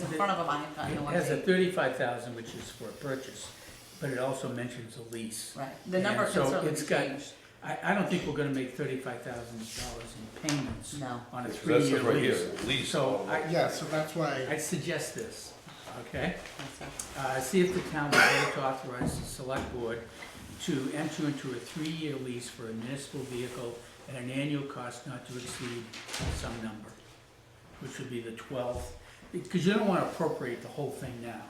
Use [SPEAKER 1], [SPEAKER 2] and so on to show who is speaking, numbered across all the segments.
[SPEAKER 1] in front of them, I haven't gotten
[SPEAKER 2] It
[SPEAKER 1] the one
[SPEAKER 2] has a
[SPEAKER 1] they-
[SPEAKER 2] thirty-five thousand, which is for a purchase, but it also mentions a lease.
[SPEAKER 1] Right, the number
[SPEAKER 2] And
[SPEAKER 1] could
[SPEAKER 2] so
[SPEAKER 1] certainly
[SPEAKER 2] it's
[SPEAKER 1] be
[SPEAKER 2] got-
[SPEAKER 1] changed.
[SPEAKER 2] I, I don't think we're gonna make thirty-five thousand dollars in payments
[SPEAKER 1] No.
[SPEAKER 2] on a
[SPEAKER 3] Because
[SPEAKER 2] three-year
[SPEAKER 3] that's right here,
[SPEAKER 2] lease.
[SPEAKER 3] lease
[SPEAKER 2] So
[SPEAKER 3] all
[SPEAKER 2] I,
[SPEAKER 4] Yeah, so that's why,
[SPEAKER 2] I suggest this, okay?
[SPEAKER 1] That's it.
[SPEAKER 2] Uh, see if the town will vote to authorize the select board to enter into a three-year lease for a municipal vehicle at an annual cost not to exceed some number, which would be the twelfth, because you don't wanna appropriate the whole thing now.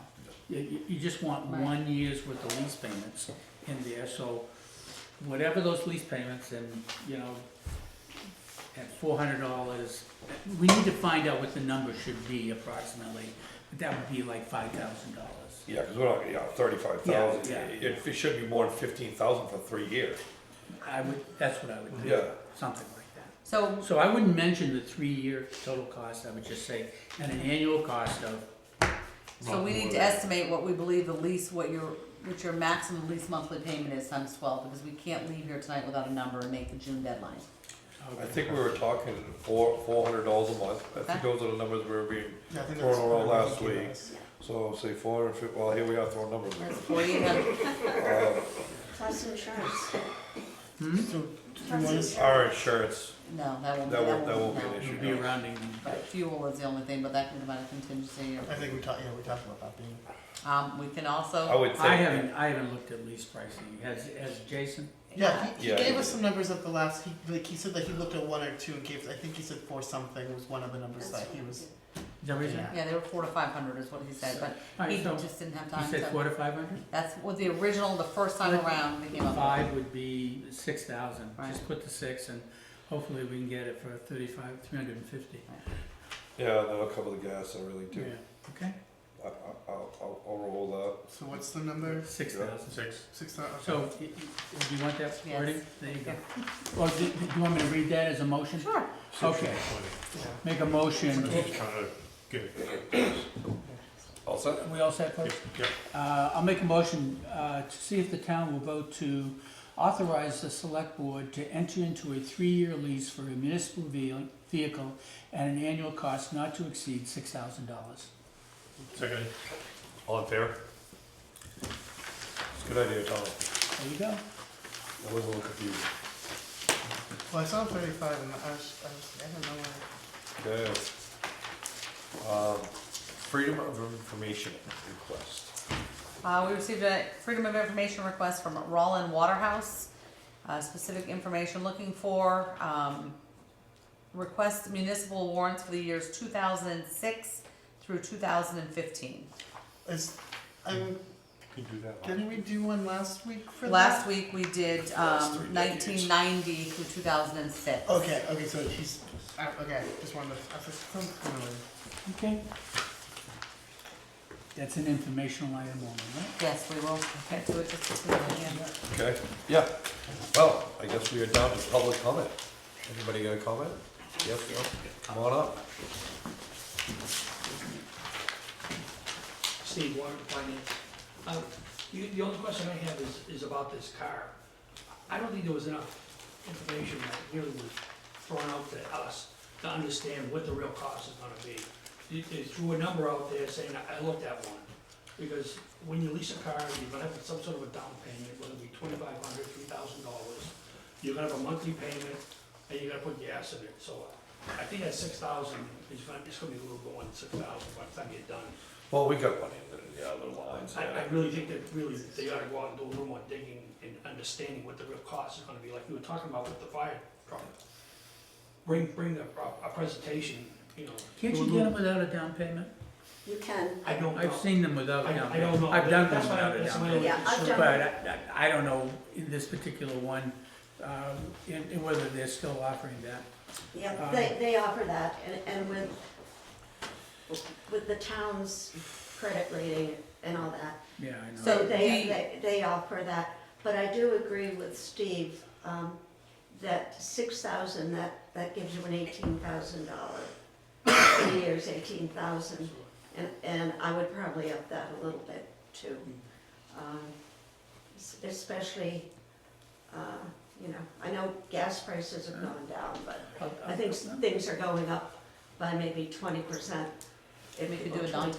[SPEAKER 2] You, you, you just want
[SPEAKER 1] Right.
[SPEAKER 2] one year's worth of lease payments in there, so whatever those lease payments and, you know, at four hundred dollars, we need to find out what the number should be approximately, but that would be like five thousand dollars.
[SPEAKER 3] Yeah, because we're not, yeah, thirty-five thousand,
[SPEAKER 2] Yeah, yeah.
[SPEAKER 3] it, it should be more than fifteen thousand for three years.
[SPEAKER 2] I would, that's what I would do.
[SPEAKER 3] Yeah.
[SPEAKER 2] Something like that.
[SPEAKER 1] So,
[SPEAKER 2] So I wouldn't mention the three-year total cost, I would just say, at an annual cost of,
[SPEAKER 1] so we need to estimate what we believe the lease, what your, what your maximum lease monthly payment is times twelve, because we can't leave here tonight without a number and make the June deadline.
[SPEAKER 3] I think we were talking four, four hundred dollars a month, I
[SPEAKER 1] Okay.
[SPEAKER 3] think those are the numbers we were being,
[SPEAKER 4] yeah, I think
[SPEAKER 3] Thrown
[SPEAKER 4] that's.
[SPEAKER 3] around
[SPEAKER 4] what
[SPEAKER 3] last
[SPEAKER 4] we
[SPEAKER 3] week.
[SPEAKER 4] was.
[SPEAKER 3] so say four hundred fifty, well, here we are throwing numbers. Uh,
[SPEAKER 1] That's forty-eight hundred,
[SPEAKER 5] Plus insurance.
[SPEAKER 2] Hmm?
[SPEAKER 4] So, do you
[SPEAKER 5] Plus
[SPEAKER 4] want us-
[SPEAKER 5] insurance.
[SPEAKER 3] Our insurance,
[SPEAKER 1] no, that won't,
[SPEAKER 3] that won't,
[SPEAKER 1] that
[SPEAKER 3] that
[SPEAKER 1] won't,
[SPEAKER 3] won't be an
[SPEAKER 1] no.
[SPEAKER 2] it'll
[SPEAKER 3] issue.
[SPEAKER 2] be
[SPEAKER 3] no.
[SPEAKER 2] rounding.
[SPEAKER 1] But fuel is the only thing, but that can come out of contingency,
[SPEAKER 4] I think we talked, yeah, we talked about that being,
[SPEAKER 1] or, um, we can
[SPEAKER 3] I
[SPEAKER 1] also,
[SPEAKER 3] would
[SPEAKER 2] I
[SPEAKER 3] think,
[SPEAKER 2] haven't, I haven't looked at lease pricing, has, has Jason?
[SPEAKER 4] yeah, he, he
[SPEAKER 3] Yeah.
[SPEAKER 4] gave us some numbers at the last, he, like, he said that he looked at one or two and gave, I think he said four something was one of the numbers that he was.
[SPEAKER 2] Is that what he said?
[SPEAKER 4] Yeah.
[SPEAKER 1] yeah, they were four to five hundred is what he said, but
[SPEAKER 2] All
[SPEAKER 1] he
[SPEAKER 2] right, so,
[SPEAKER 1] just didn't have
[SPEAKER 2] you
[SPEAKER 1] time
[SPEAKER 2] said
[SPEAKER 1] to.
[SPEAKER 2] four to five hundred?
[SPEAKER 1] That's what the original, the first time around, we came up with.
[SPEAKER 2] Five would be six thousand, just
[SPEAKER 1] Right.
[SPEAKER 2] put the six, and hopefully we can get it for thirty-five, three hundred and fifty.
[SPEAKER 3] yeah, that'll cover the gas, I really
[SPEAKER 2] Yeah,
[SPEAKER 3] do.
[SPEAKER 2] okay,
[SPEAKER 3] I, I, I'll, I'll, I'll roll
[SPEAKER 4] So what's the number?
[SPEAKER 2] six
[SPEAKER 3] Yeah.
[SPEAKER 2] thousand. Six.
[SPEAKER 4] Six thou- okay.
[SPEAKER 2] So, i- i- do you want that
[SPEAKER 1] Yes.
[SPEAKER 2] wording? There you go. Or do do you want me to read that as a motion?
[SPEAKER 1] Sure.
[SPEAKER 2] Okay, make a motion.
[SPEAKER 3] that. All set?
[SPEAKER 2] We all set, folks? Uh, I'll make a motion uh, to see if the town will vote to authorize the select board to enter into a three-year lease for a municipal ve- vehicle at an annual cost not to exceed six thousand dollars.
[SPEAKER 6] Second. All in favor?
[SPEAKER 3] It's a good idea, Tom,
[SPEAKER 2] There you go.
[SPEAKER 3] I was a little confused.
[SPEAKER 4] Well, I saw thirty-five and I was, I was, I don't know where.
[SPEAKER 3] Okay. Um, Freedom of information request.
[SPEAKER 1] Uh, we received a Freedom of Information request from Rollin Waterhouse, uh, specific information looking for, um, request municipal warrants for the years two thousand and six through two thousand and fifteen.
[SPEAKER 4] Is, I'm,
[SPEAKER 3] You can do that.
[SPEAKER 4] didn't we do one last week for that?
[SPEAKER 1] Last week, we did,
[SPEAKER 3] Last three
[SPEAKER 1] um,
[SPEAKER 3] decades.
[SPEAKER 1] nineteen ninety through two thousand and six.
[SPEAKER 4] Okay, okay, so he's, uh, okay, just wanted to, I was familiar.
[SPEAKER 2] Okay. That's an informational item only, right?
[SPEAKER 1] Yes, we will get to it just as soon as we can.
[SPEAKER 3] Okay, yeah, well, I guess we are down to public comment. Anybody got a comment? Yes, no, come on up.
[SPEAKER 7] Steve Warren, Finance. Uh, you- The only question I have is, is about this car. I don't think there was enough information that really was thrown out to us to understand what the real cost is gonna be. They- They threw a number out there saying, I I looked at one, because when you lease a car, you're gonna have some sort of a down payment, whether it be twenty-five hundred, three thousand dollars. You're gonna have a monthly payment, and you're gonna put gas in it, so I think at six thousand, it's gonna, it's gonna be a little going, six thousand by the time you're done.
[SPEAKER 3] Well, we got one in the, yeah, little lines,
[SPEAKER 7] I, I
[SPEAKER 3] yeah.
[SPEAKER 7] really think that really, they ought to go out and do a little more digging and understanding what the real cost is gonna be, like you were talking about with the fire truck. Bring, bring a, a presentation, you know.
[SPEAKER 2] Can't you
[SPEAKER 7] do a
[SPEAKER 2] get
[SPEAKER 7] little-
[SPEAKER 2] them without a down payment?
[SPEAKER 5] You can.
[SPEAKER 7] I don't know.
[SPEAKER 2] I've seen them without
[SPEAKER 7] I-
[SPEAKER 2] down
[SPEAKER 7] I don't
[SPEAKER 2] payment.
[SPEAKER 7] know.
[SPEAKER 2] I've done them
[SPEAKER 7] That's my-
[SPEAKER 2] without a
[SPEAKER 7] that's
[SPEAKER 2] down
[SPEAKER 7] my
[SPEAKER 2] payment.
[SPEAKER 7] only
[SPEAKER 5] Yeah, I've
[SPEAKER 7] concern.
[SPEAKER 5] done
[SPEAKER 2] But I, I I don't know in this particular one, um, in- in whether they're still offering that.
[SPEAKER 5] Yeah,
[SPEAKER 2] Um,
[SPEAKER 5] they, they offer that, and, and with, with the town's credit rating and all that,
[SPEAKER 2] Yeah, I know.
[SPEAKER 1] So
[SPEAKER 5] they,
[SPEAKER 1] the-
[SPEAKER 5] they, they offer that. But I do agree with Steve, um, that six thousand, that, that gives you an eighteen thousand dollar, three years, eighteen thousand, and, and I would probably up that a little bit too. Um, es- Especially, uh, you know, I know gas prices have gone down, but
[SPEAKER 2] I'll-
[SPEAKER 5] I think s-
[SPEAKER 2] I'll-
[SPEAKER 5] things are going up by maybe twenty percent.
[SPEAKER 1] We could do a down